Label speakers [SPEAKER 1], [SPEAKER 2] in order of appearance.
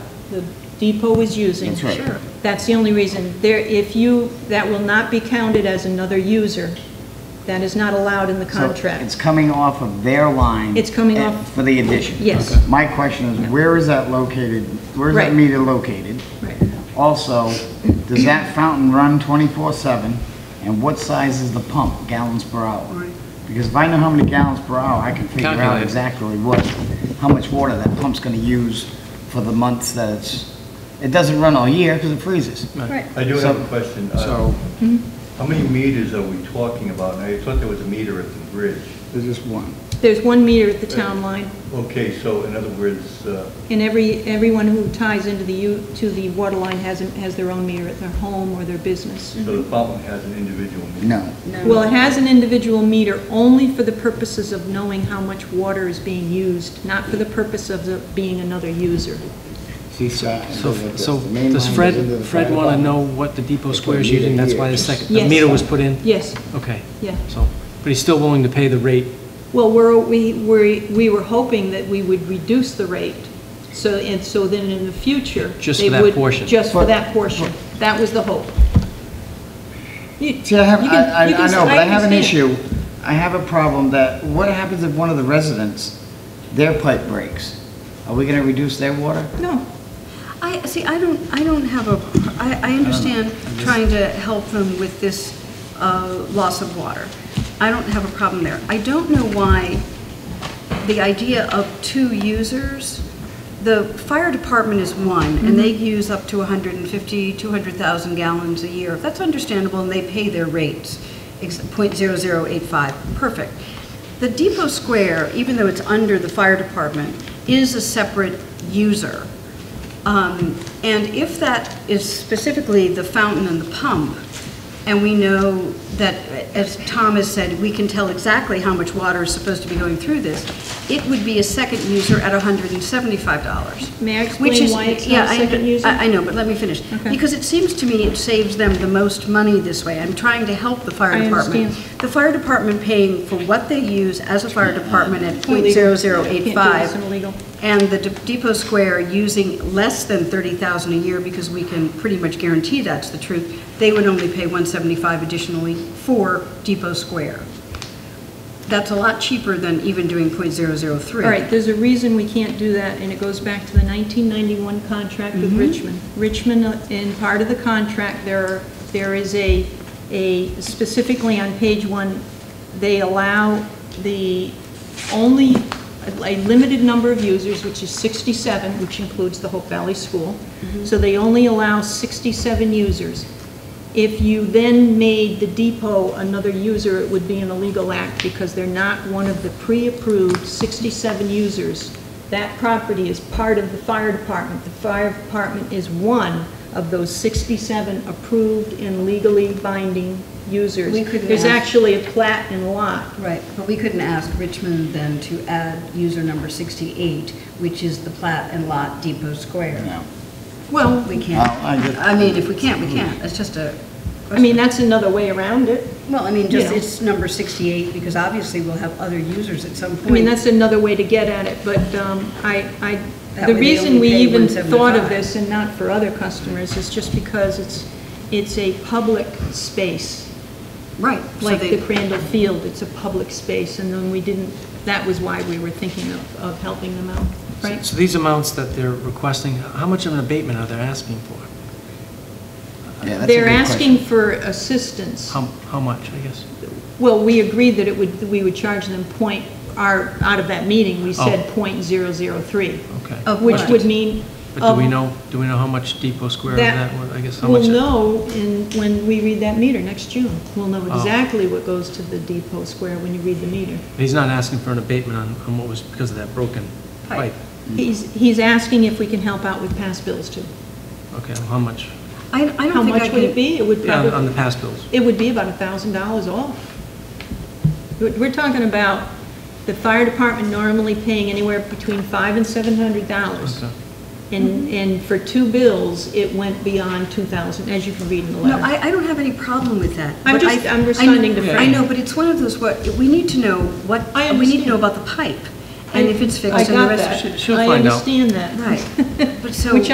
[SPEAKER 1] the depot was using.
[SPEAKER 2] That's right. Sure.
[SPEAKER 1] That's the only reason. There, if you, that will not be counted as another user. That is not allowed in the
[SPEAKER 2] So It's
[SPEAKER 1] contract.
[SPEAKER 2] coming off of their line.
[SPEAKER 1] It's coming
[SPEAKER 2] at-
[SPEAKER 1] off-
[SPEAKER 2] For the addition.
[SPEAKER 1] Yes. Okay.
[SPEAKER 2] My question is, where is that located? Where is that
[SPEAKER 1] Right.
[SPEAKER 2] meter located?
[SPEAKER 1] Right.
[SPEAKER 2] Also, does that fountain run 24/7? And what size is the pump, gallons per hour? Because if I know how many gallons per hour, I can figure out
[SPEAKER 3] Calculate it.
[SPEAKER 2] exactly what, how much water that pump's going to use for the months that it's, it doesn't run all year because it freezes.
[SPEAKER 1] Right.
[SPEAKER 4] I do have a question. Uh,
[SPEAKER 3] So,
[SPEAKER 4] How many meters are we talking about? I thought there was a meter at the bridge.
[SPEAKER 2] There's just one.
[SPEAKER 1] There's one meter at the town line,
[SPEAKER 4] Okay, so in other words, uh,
[SPEAKER 1] and every, everyone who ties into the, u- to the water line has, an- has their own meter at their home or their business.
[SPEAKER 4] so
[SPEAKER 3] Mm-hmm.
[SPEAKER 4] the fountain has an individual meter?
[SPEAKER 2] Mm-hmm. No.
[SPEAKER 1] Well, it has an individual meter only for the purposes of knowing how much water is being used, not for the purpose of the- being another user.
[SPEAKER 2] See, so,
[SPEAKER 3] so, so does Fred, Fred want to know what the depot square is using? That's why the second, the
[SPEAKER 1] Yes.
[SPEAKER 3] meter was put in?
[SPEAKER 1] Yes,
[SPEAKER 3] Okay,
[SPEAKER 1] yeah.
[SPEAKER 3] so, but he's still willing to pay the rate?
[SPEAKER 1] Well, we're, we, we we were hoping that we would reduce the rate, so, and so then in the future.
[SPEAKER 3] Just
[SPEAKER 1] they
[SPEAKER 3] for that
[SPEAKER 1] would-
[SPEAKER 3] portion.
[SPEAKER 1] Just for
[SPEAKER 2] But-
[SPEAKER 1] that portion. That was the hope. You-
[SPEAKER 2] See, I have,
[SPEAKER 1] you
[SPEAKER 2] I,
[SPEAKER 1] can-
[SPEAKER 2] I
[SPEAKER 1] you can-
[SPEAKER 2] I know, but I have an
[SPEAKER 1] understand.
[SPEAKER 2] issue. I have a problem that, what happens if one of the residents, their pipe breaks? Are we gonna reduce their water?
[SPEAKER 1] No,
[SPEAKER 5] I, see, I don't, I don't have a, I, I understand trying to help them with this uh, loss of water. I don't have a problem there. I don't know why the idea of two users, the fire department is one, and they use up to 150, 200,000 gallons a year. That's understandable, and they pay their rates, ex- .0085, perfect. The depot square, even though it's under the fire department, is a separate user. Um, And if that is specifically the fountain and the pump, and we know that, as Tom has said, we can tell exactly how much water is supposed to be going through this, it would be a second user at $175.
[SPEAKER 1] May I
[SPEAKER 5] Which
[SPEAKER 1] explain
[SPEAKER 5] is-
[SPEAKER 1] why it's not
[SPEAKER 5] yeah,
[SPEAKER 1] a
[SPEAKER 5] I-
[SPEAKER 1] second user?
[SPEAKER 5] I I know, but let me finish.
[SPEAKER 1] Okay.
[SPEAKER 5] Because it seems to me it saves them the most money this way. I'm trying to help the fire
[SPEAKER 1] I
[SPEAKER 5] department.
[SPEAKER 1] understand.
[SPEAKER 5] The fire department paying for what they use as a fire department at
[SPEAKER 1] Illegal. Can't
[SPEAKER 5] .0085.
[SPEAKER 1] do this in illegal.
[SPEAKER 5] And the De- Depot Square using less than 30,000 a year, because we can pretty much guarantee that's the truth, they would only pay 175 additionally for Depot Square. That's a lot cheaper than even doing .003.
[SPEAKER 1] All right, there's a reason we can't do that, and it goes back to the 1991 contract with Richmond. Richmond, uh, in part of the contract, there, are- there is a, a, specifically on page one, they allow the only, a- a limited number of users, which is 67, which includes the Hope Valley School. So they only allow 67 users. If you then made the depot another user, it would be an illegal act because they're not one of the pre-approved 67 users. That property is part of the fire department. The fire department is one of those 67 approved and legally binding users.
[SPEAKER 5] We couldn't
[SPEAKER 1] There's
[SPEAKER 5] ask-
[SPEAKER 1] actually a plat and lot.
[SPEAKER 5] Right, but we couldn't ask Richmond then to add user number 68, which is the plat and lot Depot Square.
[SPEAKER 2] No.
[SPEAKER 1] Well,
[SPEAKER 5] We can't.
[SPEAKER 2] Well, I get-
[SPEAKER 5] I mean, if we can't, we can't. It's just a.
[SPEAKER 1] I mean, that's another way around it.
[SPEAKER 5] Well, I mean, just,
[SPEAKER 1] Yeah.
[SPEAKER 5] it's number 68, because obviously we'll have other users at some point.
[SPEAKER 1] I mean, that's another way to get at it, but um, I, I, the
[SPEAKER 5] That way they
[SPEAKER 1] reason
[SPEAKER 5] only
[SPEAKER 1] we
[SPEAKER 5] pay
[SPEAKER 1] even thought of
[SPEAKER 5] 175.
[SPEAKER 1] this and not for other customers is just because it's, it's a public space,
[SPEAKER 5] Right. so
[SPEAKER 1] like
[SPEAKER 5] they-
[SPEAKER 1] the Crandall Field, it's a public space, and then we didn't, that was why we were thinking of, of helping them out, right?
[SPEAKER 3] So these amounts that they're requesting, how much of an abatement are they asking for?
[SPEAKER 2] Yeah, that's a
[SPEAKER 1] They're
[SPEAKER 2] good
[SPEAKER 1] asking
[SPEAKER 2] question.
[SPEAKER 1] for assistance.
[SPEAKER 3] How, how much, I guess?
[SPEAKER 1] Well, we agreed that it would, we would charge them point, our, out of that meeting,
[SPEAKER 3] Oh.
[SPEAKER 1] we said point zero zero three,
[SPEAKER 3] Okay.
[SPEAKER 5] Of
[SPEAKER 1] which
[SPEAKER 5] what?
[SPEAKER 1] would mean.
[SPEAKER 3] Oh. But do we
[SPEAKER 1] of-
[SPEAKER 3] know, do we know how much Depot Square of
[SPEAKER 1] That
[SPEAKER 3] that, was? I guess, how much?
[SPEAKER 1] We'll know
[SPEAKER 3] that-
[SPEAKER 1] in, when we read that meter next June. We'll know
[SPEAKER 3] Oh.
[SPEAKER 1] exactly what goes to the depot square when you read the meter.
[SPEAKER 3] He's not asking for an abatement on, on what was, because of that broken
[SPEAKER 5] Pipe.
[SPEAKER 3] pipe.
[SPEAKER 1] He's, he's asking if we can help out with past bills too.
[SPEAKER 3] Okay, well, how much?
[SPEAKER 5] I, I don't think I
[SPEAKER 1] How much would
[SPEAKER 5] can-
[SPEAKER 1] it be? It would
[SPEAKER 3] Yeah, on- on
[SPEAKER 1] probably,
[SPEAKER 3] the past bills.
[SPEAKER 1] it would be about a thousand dollars off. We're we're talking about the fire department normally paying anywhere between five and seven hundred dollars.
[SPEAKER 3] Okay.
[SPEAKER 1] And, and for two bills, it went beyond two thousand, as you can read in the
[SPEAKER 5] No,
[SPEAKER 1] letter.
[SPEAKER 5] I, I don't have any problem with that.
[SPEAKER 1] I'm
[SPEAKER 5] but I-
[SPEAKER 1] just- I'm
[SPEAKER 5] I-
[SPEAKER 1] responding to
[SPEAKER 5] I
[SPEAKER 1] Frank.
[SPEAKER 5] know, but it's one of those, what, we need to know what,
[SPEAKER 1] I
[SPEAKER 5] we need to know
[SPEAKER 1] understand.
[SPEAKER 5] about the pipe, and if it's fixed and the rest.
[SPEAKER 3] She'll find out.
[SPEAKER 1] I understand that.
[SPEAKER 5] Right, but so.
[SPEAKER 1] Which